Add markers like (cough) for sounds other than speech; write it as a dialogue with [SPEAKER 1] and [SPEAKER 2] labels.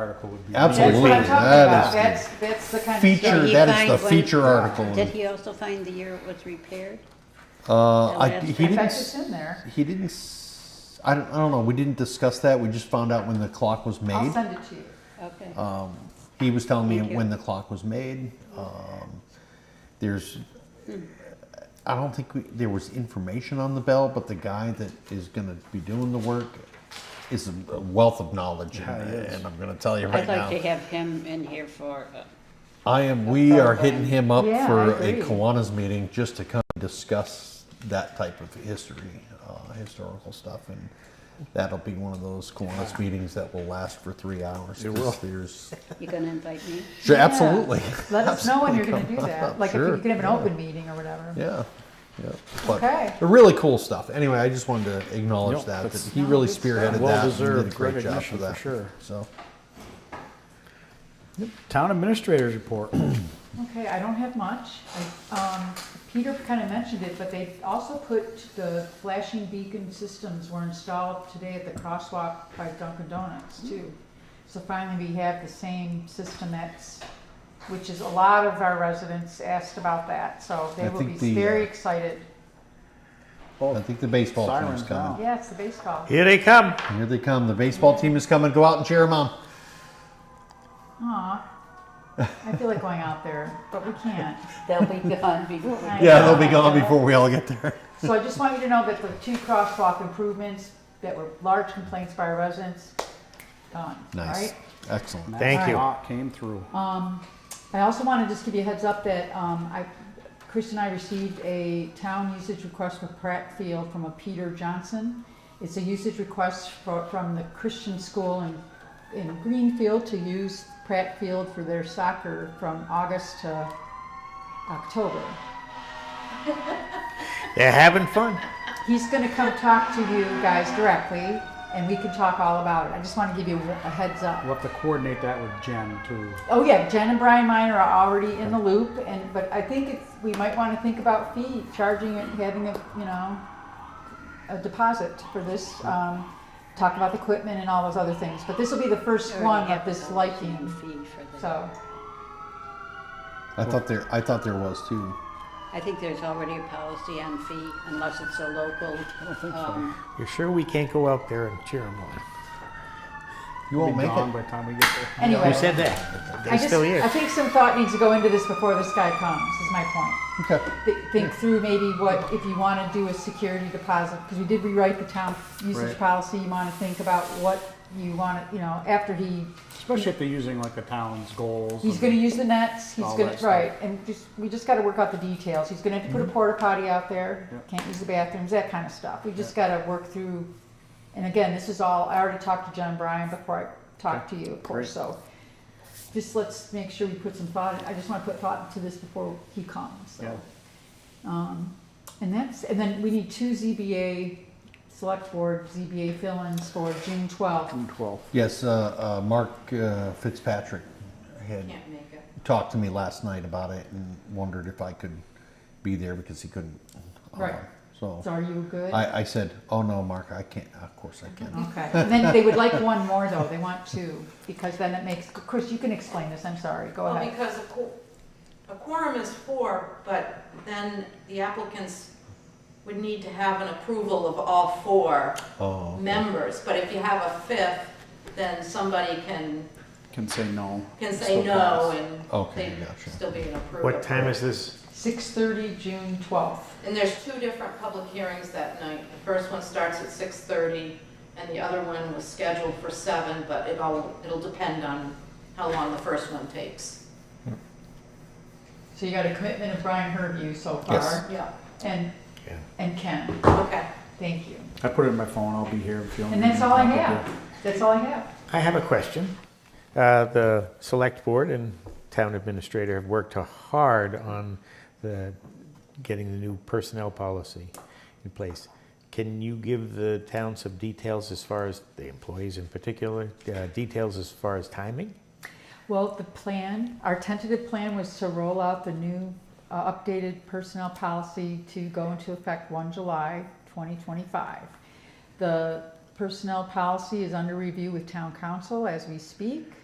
[SPEAKER 1] article would be.
[SPEAKER 2] Absolutely.
[SPEAKER 3] That's what I'm talking about.
[SPEAKER 2] That is-
[SPEAKER 3] That's, that's the kind of.
[SPEAKER 2] Feature,
[SPEAKER 4] Did he
[SPEAKER 2] that is the
[SPEAKER 4] find when-
[SPEAKER 2] feature article.
[SPEAKER 4] Did he also find the year it was repaired?
[SPEAKER 2] Uh, I,
[SPEAKER 4] That's-
[SPEAKER 2] he
[SPEAKER 4] in
[SPEAKER 2] didn't.
[SPEAKER 3] In fact,
[SPEAKER 2] s-
[SPEAKER 3] it's in there.
[SPEAKER 2] He didn't. s- I don't, I don't know. We didn't discuss that. We just found out when the clock was
[SPEAKER 3] I'll
[SPEAKER 2] made.
[SPEAKER 3] send it to you.
[SPEAKER 4] Okay.
[SPEAKER 2] Um, he was telling me
[SPEAKER 4] Thank you.
[SPEAKER 2] when the clock was made. Um, there's. I don't think we, there was information on the bell, but the guy that is going to be doing the work is a wealth of knowledge,
[SPEAKER 1] Yeah,
[SPEAKER 2] and,
[SPEAKER 1] he is.
[SPEAKER 2] and I'm going to tell you right
[SPEAKER 4] I'd
[SPEAKER 2] now.
[SPEAKER 4] like to have him in here for, uh,
[SPEAKER 2] I am. We are hitting him up
[SPEAKER 3] Yeah,
[SPEAKER 2] for
[SPEAKER 3] I
[SPEAKER 2] a
[SPEAKER 3] agree.
[SPEAKER 2] Kiwanis meeting just to come discuss that type of history, uh, historical stuff, and that'll be one of those Kiwanis meetings that will last for three hours.
[SPEAKER 1] It
[SPEAKER 2] 'cause
[SPEAKER 1] will.
[SPEAKER 2] There's
[SPEAKER 4] you gonna invite me?
[SPEAKER 2] sure,
[SPEAKER 3] Yeah.
[SPEAKER 2] absolutely.
[SPEAKER 3] Let us know when you're gonna do
[SPEAKER 2] (laughs) Absolutely, come
[SPEAKER 3] that,
[SPEAKER 2] on.
[SPEAKER 3] like if
[SPEAKER 2] Sure,
[SPEAKER 3] you could have an
[SPEAKER 2] yeah.
[SPEAKER 3] open meeting or whatever.
[SPEAKER 2] Yeah. Yeah, but
[SPEAKER 3] Okay.
[SPEAKER 2] but really cool stuff. Anyway, I just wanted to acknowledge
[SPEAKER 1] Yep,
[SPEAKER 2] that, that
[SPEAKER 1] that's-
[SPEAKER 2] he really spearheaded that. and did a
[SPEAKER 1] Well-deserved
[SPEAKER 2] great job
[SPEAKER 1] recognition for
[SPEAKER 2] that.
[SPEAKER 1] sure.
[SPEAKER 2] So
[SPEAKER 1] Town administrators report.
[SPEAKER 3] Okay, I don't have much. I- Um, Peter kind of mentioned it, but they also put the flashing beacon systems were installed today at the crosswalk by Dunkin' Donuts too. So finally, we have the same system that's, which is a lot of our residents asked about that, so
[SPEAKER 2] I
[SPEAKER 3] they will be
[SPEAKER 2] think the, uh,
[SPEAKER 3] very excited.
[SPEAKER 2] I think the baseball
[SPEAKER 1] Sirens
[SPEAKER 2] team's coming.
[SPEAKER 1] now.
[SPEAKER 3] Yeah, it's the baseball.
[SPEAKER 1] Here they come.
[SPEAKER 2] Here they come. The baseball team is coming. Go out and cheer them on.
[SPEAKER 3] Aw, I feel like going out there, but we can't.
[SPEAKER 4] They'll be gone before. we-
[SPEAKER 2] (laughs)
[SPEAKER 3] I
[SPEAKER 2] Yeah,
[SPEAKER 3] know.
[SPEAKER 2] they'll be gone before we all get there.
[SPEAKER 3] So I just want you to know that the two crosswalk improvements that were large complaints by our residents, done.
[SPEAKER 2] Nice.
[SPEAKER 3] alright?
[SPEAKER 2] Excellent.
[SPEAKER 5] Thank you.
[SPEAKER 1] Hawk Came through.
[SPEAKER 3] Um, I also want to just give you a heads up that, um, I, Chris and I received a town usage request for Pratt Field from a Peter Johnson. It's a usage request for, from the Christian School in, in Greenfield to use Pratt Field for their soccer from August to October.
[SPEAKER 5] They're having fun.
[SPEAKER 3] He's going to come talk to you guys directly, and we can talk all about it. I just want to give you a heads up.
[SPEAKER 1] We'll have to coordinate that with Jen too.
[SPEAKER 3] Oh yeah, Jen and Brian Miner are already in the loop, and but I think it's we might want to think about fee charging it, having a you know a deposit for this. Um, talk about the equipment and all those other things, but this will be the first
[SPEAKER 4] Already
[SPEAKER 3] one
[SPEAKER 4] have
[SPEAKER 3] of this
[SPEAKER 4] the
[SPEAKER 3] liking.
[SPEAKER 4] Fee for the-
[SPEAKER 3] So
[SPEAKER 2] I thought there. I thought there was too.
[SPEAKER 4] I think there's already a policy on fee unless it's a local. um,
[SPEAKER 5] You're sure we can't go out there and cheer them on?
[SPEAKER 2] You
[SPEAKER 1] We'll
[SPEAKER 2] won't
[SPEAKER 1] be
[SPEAKER 2] make
[SPEAKER 1] gone
[SPEAKER 2] it.
[SPEAKER 1] by the time we get there.
[SPEAKER 3] anyway,
[SPEAKER 5] Who said that?
[SPEAKER 3] I
[SPEAKER 5] They're
[SPEAKER 3] just
[SPEAKER 5] still
[SPEAKER 3] I
[SPEAKER 5] here.
[SPEAKER 3] think some thought needs to go into this before this guy comes. Is my point.
[SPEAKER 2] Okay.
[SPEAKER 3] Th- Think through maybe what if you want to do a security deposit because we did rewrite the town usage
[SPEAKER 1] Right.
[SPEAKER 3] policy. You want to think about what you want to you know after he
[SPEAKER 1] Especially if they're using like the town's goals.
[SPEAKER 3] He's
[SPEAKER 1] and-
[SPEAKER 3] gonna use the nets, he's
[SPEAKER 1] All
[SPEAKER 3] gonna,
[SPEAKER 1] that stuff. Mm-hmm.
[SPEAKER 3] right, and just, we just gotta work out the details, he's gonna have to put a porta potty out there, can't use the bathrooms, that kinda stuff, we just gotta work through. And again, this is all, I already talked to John Bryan before I talked to you, of course, so. Just let's make sure we put some thought, I just wanna put thought into this before he comes,
[SPEAKER 1] Yeah.
[SPEAKER 3] so. Um, and that's, and then we need two ZBA, select board ZBA fill-ins for June twelfth.
[SPEAKER 2] Mm.
[SPEAKER 1] June 12th.
[SPEAKER 2] Yes, uh, uh, Mark uh, Fitzpatrick had
[SPEAKER 4] Can't make it.
[SPEAKER 2] talked to me last night about it and wondered if I could be there because he couldn't. Uh,
[SPEAKER 3] Right. So
[SPEAKER 2] So
[SPEAKER 3] are you good?
[SPEAKER 2] I, I said, "Oh no, Mark, I can't. Of course I can."
[SPEAKER 3] Okay, and then they would like one more though, they want two, because then it makes, Chris, you can explain this, I'm sorry, go
[SPEAKER 6] Well,
[SPEAKER 3] ahead.
[SPEAKER 6] because a qu- a quorum is four, but then the applicants would need to have an approval of all four
[SPEAKER 2] Oh. okay.
[SPEAKER 6] members. But if you have a fifth, then somebody can,
[SPEAKER 1] Can say no.
[SPEAKER 6] can
[SPEAKER 1] Still
[SPEAKER 6] say no
[SPEAKER 1] pass.
[SPEAKER 6] and
[SPEAKER 2] Okay,
[SPEAKER 6] they'd
[SPEAKER 2] gotcha.
[SPEAKER 6] still be an approval.
[SPEAKER 5] What time is this?
[SPEAKER 3] Six thirty, June twelfth,
[SPEAKER 6] And there's two different public hearings that night. The first one starts at 6:30 and the other one was scheduled for seven, but it all, it'll depend on how long the first one takes.
[SPEAKER 3] so you got a commitment of Brian Herview so
[SPEAKER 2] Yes.
[SPEAKER 3] far,
[SPEAKER 6] Yeah,
[SPEAKER 3] and,
[SPEAKER 5] Yeah.
[SPEAKER 3] and Ken,
[SPEAKER 6] okay.
[SPEAKER 3] thank you.
[SPEAKER 1] I put it in my phone. I'll be here if you want.
[SPEAKER 3] And
[SPEAKER 1] me
[SPEAKER 3] that's
[SPEAKER 1] to
[SPEAKER 3] all I
[SPEAKER 1] pop up
[SPEAKER 3] have, that's all I have.
[SPEAKER 5] I have a question. Uh, the select board and town administrator have worked hard on the, getting the new personnel policy in place. Can you give the town some details as far as, the employees in particular, uh, details as far as timing?
[SPEAKER 3] Well, the plan, our tentative plan was to roll out the new uh, updated personnel policy to go into effect one July twenty twenty-five. The personnel policy is under review with town council as we speak.